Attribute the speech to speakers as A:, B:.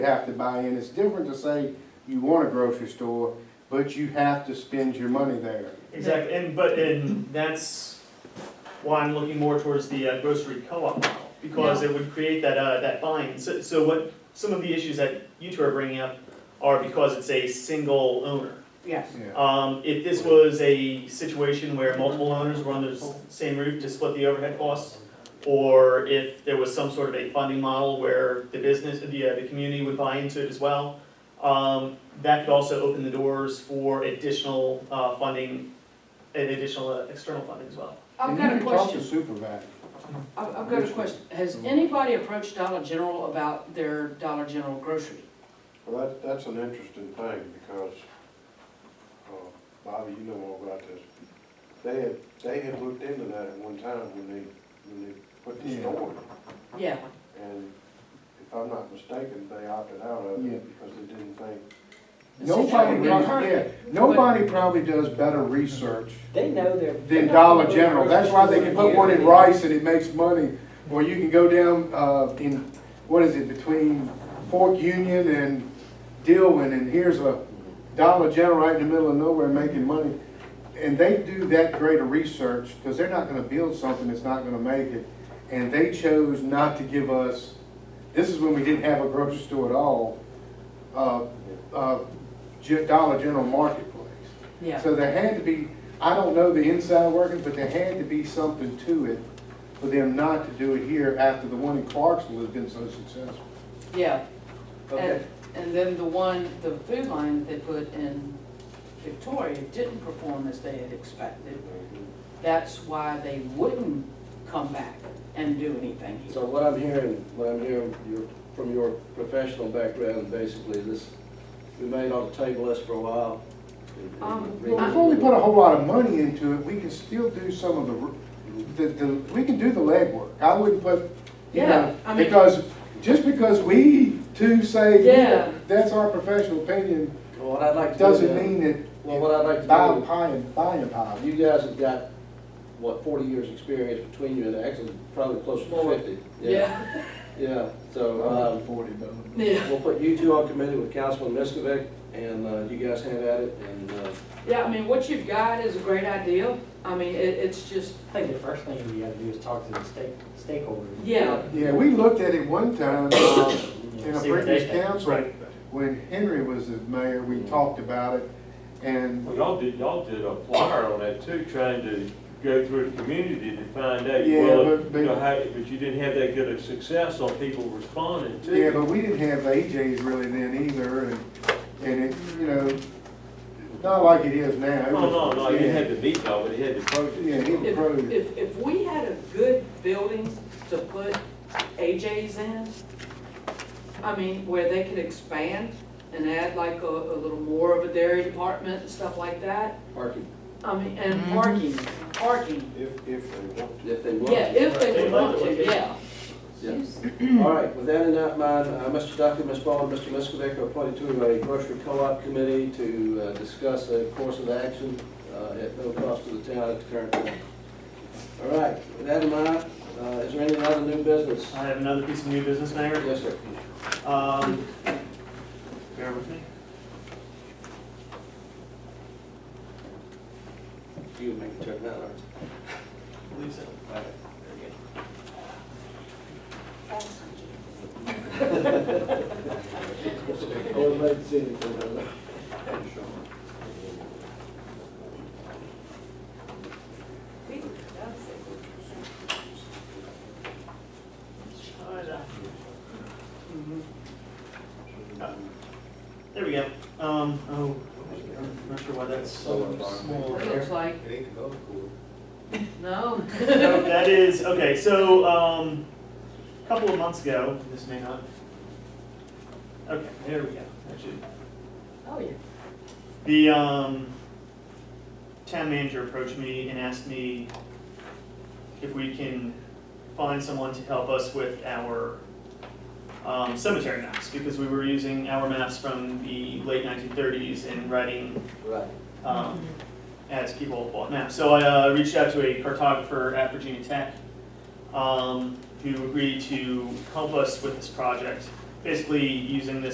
A: you have to buy in. It's different to say you want a grocery store, but you have to spend your money there.
B: Exactly, and, but, and that's why I'm looking more towards the uh, grocery co-op model, because it would create that, uh, that buy-in. So, so what, some of the issues that you two are bringing up are because it's a single owner.
C: Yes,
A: Yeah.
B: Um, if this was a situation where multiple owners were on the s- same roof to split the overhead costs, or if there was some sort of a funding model where the business, the, uh, the community would buy into it as well, um, that could also open the doors for additional, uh, funding, and additional uh, external funding as well.
C: I've got a question,
A: And you can talk to Mm-hmm.
C: I've, I've got a question, has anybody approached Dollar General about their Dollar General grocery?
D: Well, that, that's an interesting thing, because, uh, Bobby, you know all about this. They had, they had looked into that at one time when they, when they put the
A: Yeah.
D: store
C: Yeah,
D: in. And if I'm not mistaken, they opted out of
A: Yeah.
D: it because they didn't think,
A: Nobody,
C: It's a
A: really-
C: different-
A: yeah, nobody probably does better research
E: They know they're.
A: than Dollar General. That's why they can put one in Rice and it makes money. Or you can go down, uh, in, what is it, between Fork Union and Dillon, and here's a Dollar General right in the middle of nowhere making money. And they do that great of research, because they're not gonna build something that's not gonna make it. And they chose not to give us, this is when we didn't have a grocery store at all, uh, uh, Ge- Dollar General Marketplace.
C: yeah,
A: So there had to be, I don't know the inside workings, but there had to be something to it for them not to do it here after the one in Clarksville has been so successful.
C: yeah. And,
E: Okay.
C: and then the one, the food line that they put in Victoria didn't perform as they had expected. That's why they wouldn't come back and do anything here.
F: So what I'm hearing, what I'm hearing your- from your professional background, basically, is this, we may ought to table this for a while. and- and
C: Um,
F: re-
A: Well, We've only put a whole lot of money into it, we can still do some of the r- the, the, we can do the legwork. I wouldn't put, you
C: Yeah,
A: know,
C: I mean-
A: because, just because we two say,
C: Yeah.
A: that's our professional opinion,
F: Well, What I'd like to do.
A: doesn't
F: then-
A: mean that
F: Well, what I'd like to
A: buy a
F: do.
A: pie and buy a pie.
F: You guys have got, what, forty years' experience between you, and actually probably closer to
E: More.
F: fifty.
C: Yeah,
F: Yeah, so, um,
A: forty though.
C: yeah,
F: we'll put you two on committee with Councilman Miskovic, and, uh, you guys have at it, and, uh,
C: yeah, I mean, what you've got is a great idea, I mean, it, it's just,
E: I think the first thing we gotta do is talk to the stake, stakeholders.
C: yeah,
A: Yeah, we looked at it one time, uh, in a
E: See what they
A: previous
E: think.
A: council, when Henry was the mayor, we talked about it, and,
G: Well, y'all did, y'all did a flyer on that too, trying to go through the community to find out,
A: Yeah,
G: well,
A: but-
G: you know, how, but you didn't have that good of success on people responding to.
A: yeah, but we didn't have AJ's really then either, and, and it, you know, not like it is now. It
G: No, Oh, no,
A: was-
G: no, you
A: yeah.
G: had the meat though, but you had the
A: Yeah,
G: project.
A: he
C: If,
A: approved.
C: if, if we had a good building to put AJ's in, I mean, where they could expand and add like a, a little more of a dairy department and stuff like that,
F: parking,
C: I mean, and parking, parking.
D: if, if they want
F: if they want.
C: Yeah, if they would
G: They'd
C: want
G: like
C: to,
G: it.
C: yeah.
F: Yeah. All right, with that in that mind, uh, Mr. Duffy, Ms. Ball, and Mr. Miskovic are appointed to a grocery co-op committee to uh, discuss a course of action uh, at no cost to the town at the current time. All right, with that in mind, uh, is there any other new business?
B: I have another piece of new business, Mayor.
F: Yes, sir.
B: Um, bear with me.
F: You make the turn, that Lawrence.
B: I believe so. Alright, very good.
F: Everybody see anything, huh?
B: Mm-hmm. There we go. Um, oh, I'm not sure why that's so small
C: It
B: there.
C: looks like,
A: It ain't the golf course.
C: no.
B: No, that is, okay, so, um, a couple of months ago, this may not. Okay, there we go, that should,
C: Oh, yeah.
B: the, um, town manager approached me and asked me if we can find someone to help us with our, um, cemetery maps, because we were using our maps from the late nineteen thirties and writing
F: Right.
B: um, as people bought maps. So I uh, reached out to a cartographer at Virginia Tech um, who agreed to help us with this project, basically using this.